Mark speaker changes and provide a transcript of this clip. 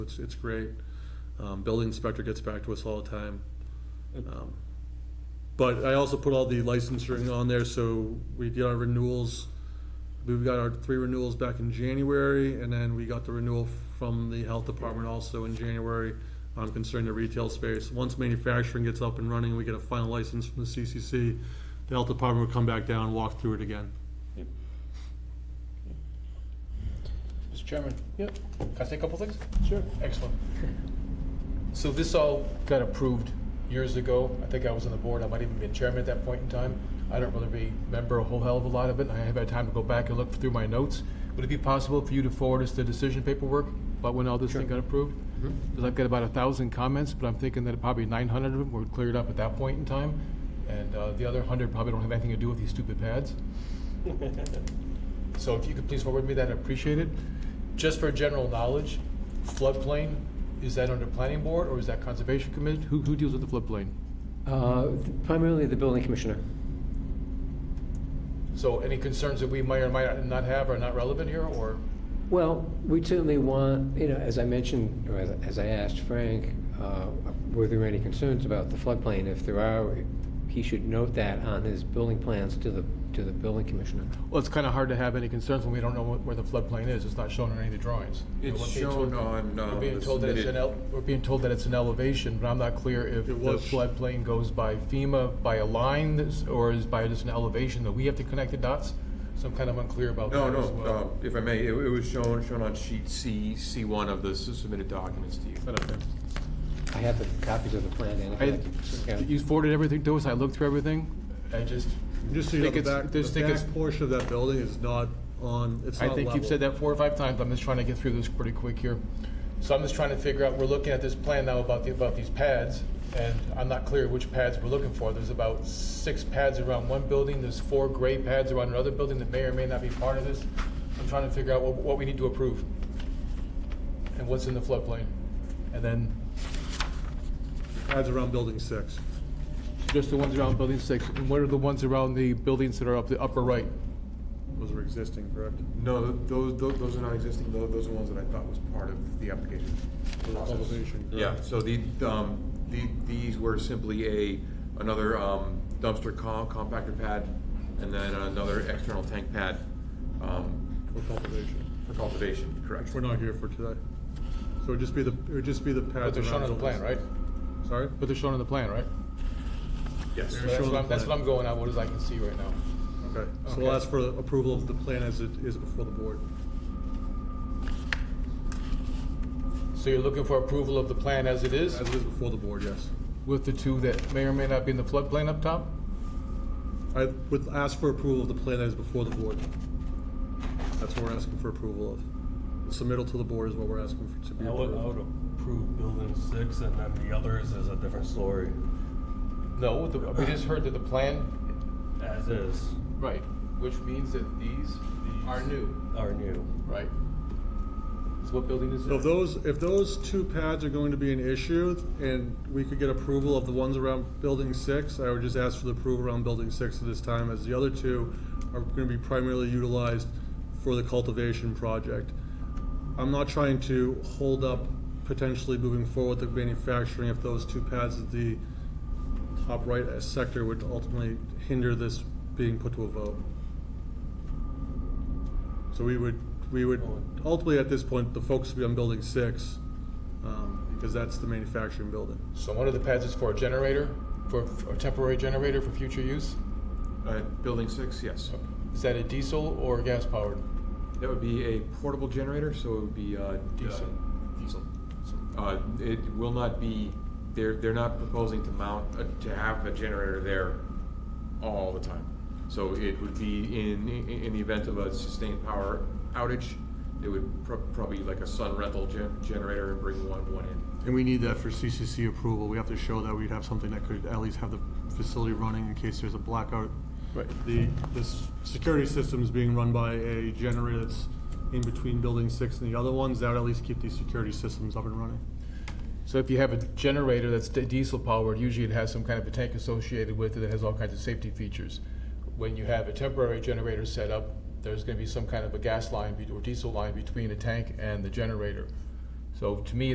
Speaker 1: It's, it's great. Um, building inspector gets back to us all the time. Um, But I also put all the licensing on there, so we did our renewals. We've got our three renewals back in January, and then we got the renewal from the health department also in January um, concerning the retail space. Once manufacturing gets up and running, we get a final license from the CCC, the health department will come back down and walk through it again.
Speaker 2: Mr. Chairman,
Speaker 3: Yep,
Speaker 2: can I say a couple things?
Speaker 3: sure.
Speaker 2: Excellent. So this all got approved years ago. I think I was on the board. I might even be chairman at that point in time. I don't really remember a whole hell of a lot of it. and I haven't had time to go back and look through my notes. Would it be possible for you to forward us the decision paperwork about when all this thing got approved?
Speaker 3: Mm-hmm.
Speaker 2: Because I've got about a thousand comments, but I'm thinking that probably nine hundred of them were cleared up at that point in time. And uh, the other hundred probably don't have anything to do with these stupid pads. So if you could please forward me that, I appreciate it. Just for general knowledge, floodplain, is that under planning board or is that conservation committee? Who, who deals with the floodplain?
Speaker 3: Uh, Primarily the building commissioner.
Speaker 2: So any concerns that we might or might not have are not relevant here or?
Speaker 3: Well, we certainly want, you know, as I mentioned, or as as I asked Frank, uh, were there any concerns about the floodplain? If there are, he should note that on his building plans to the, to the building commissioner.
Speaker 2: Well, it's kind of hard to have any concerns when we don't know what- where the floodplain is. It's not shown on any of the drawings. You know,
Speaker 4: It's
Speaker 2: we're being told-
Speaker 4: shown on, uh,
Speaker 2: We're being
Speaker 4: the
Speaker 2: told that it's an,
Speaker 4: submitted-
Speaker 2: el- we're being told that it's an elevation, but I'm not clear if the
Speaker 1: It was-
Speaker 2: floodplain goes by FEMA, by a line, that's- or is by just an elevation that we have to connect the dots? So I'm kind of unclear about
Speaker 4: No,
Speaker 2: that as well.
Speaker 4: no, uh, if I may, it it was shown, shown on sheet C, C1 of the submitted documents to you.
Speaker 2: But, okay.
Speaker 3: I have the copies of the plan, and if
Speaker 2: I,
Speaker 3: you'd like to-
Speaker 2: you forwarded everything to us, I looked through everything, I just.
Speaker 1: Just so you know,
Speaker 2: think
Speaker 1: the
Speaker 2: it's-
Speaker 1: back,
Speaker 2: just
Speaker 1: the
Speaker 2: think it's-
Speaker 1: back portion of that building is not on, it's
Speaker 2: I
Speaker 1: not
Speaker 2: think you've
Speaker 1: level.
Speaker 2: said that four or five times, I'm just trying to get through this pretty quick here. So I'm just trying to figure out, we're looking at this plan now about the, about these pads, and I'm not clear which pads we're looking for. There's about six pads around one building, there's four gray pads around another building that may or may not be part of this. I'm trying to figure out what, what we need to approve, and what's in the floodplain. And then,
Speaker 1: Adds around building six.
Speaker 2: just the ones around building six, and what are the ones around the buildings that are up the upper right?
Speaker 1: Those are existing, correct?
Speaker 4: No, th- those, tho- those are not existing, tho- those are ones that I thought was part of the application.
Speaker 1: For elevation, correct?
Speaker 4: Yeah, so the, um, the, these were simply a, another um, dumpster com- compactor pad, and then another external tank pad, um,
Speaker 1: For cultivation,
Speaker 4: for cultivation, correct?
Speaker 1: which we're not here for today. So it'd just be the, it would just be the pads around.
Speaker 2: But they're shown on the plan,
Speaker 1: buildings.
Speaker 2: right?
Speaker 1: Sorry?
Speaker 2: But they're shown on the plan, right?
Speaker 4: Yes.
Speaker 1: They're
Speaker 2: That's
Speaker 1: shown
Speaker 2: what
Speaker 1: on
Speaker 2: I'm,
Speaker 1: the
Speaker 2: that's
Speaker 1: plan.
Speaker 2: what I'm going on, what as I can see right now.
Speaker 1: Okay, so
Speaker 2: Okay.
Speaker 1: we'll ask for approval of the plan as it is before the board.
Speaker 2: So you're looking for approval of the plan as it is,
Speaker 1: As it is before the board, yes.
Speaker 2: with the two that may or may not be in the floodplain up top?
Speaker 1: I would ask for approval of the plan as before the board. That's what we're asking for approval of. The Submittal to the board is what we're asking for to be
Speaker 5: I would, I would
Speaker 1: approved.
Speaker 5: approve building six and then the others is a different story,
Speaker 2: No, the- we just heard that the plan,
Speaker 5: as is,
Speaker 2: right, which means that these are new,
Speaker 5: are new.
Speaker 2: right? So what building is
Speaker 1: So if
Speaker 2: it?
Speaker 1: those, if those two pads are going to be an issue, and we could get approval of the ones around building six, I would just ask for the approval around building six at this time, as the other two are gonna be primarily utilized for the cultivation project. I'm not trying to hold up potentially moving forward the manufacturing if those two pads at the top right sector would ultimately hinder this being put to a vote. So we would, we would, ultimately, at this point, the focus would be on building six, um, because that's the manufacturing building.
Speaker 2: So one of the pads is for a generator, for for a temporary generator for future use?
Speaker 4: Uh, Building six, yes.
Speaker 2: Is that a diesel or gas powered?
Speaker 4: That would be a portable generator, so it would be uh,
Speaker 2: Diesel.
Speaker 4: uh, Diesel. Uh, It will not be, they're, they're not proposing to mount, uh, to have a generator there all the time. So it would be in, in in the event of a sustained power outage, it would pro- probably like a sun rental gen- generator and bring one, one in.
Speaker 1: And we need that for CCC approval. We have to show that we'd have something that could at least have the facility running in case there's a blackout.
Speaker 2: Right.
Speaker 1: The, this security system is being run by a generator that's in between building six and the other ones. That would at least keep these security systems up and running.
Speaker 2: So if you have a generator that's di- diesel powered, usually it has some kind of a tank associated with it that has all kinds of safety features. When you have a temporary generator set up, there's going to be some kind of a gas line be- or diesel line between the tank and the generator. So to me,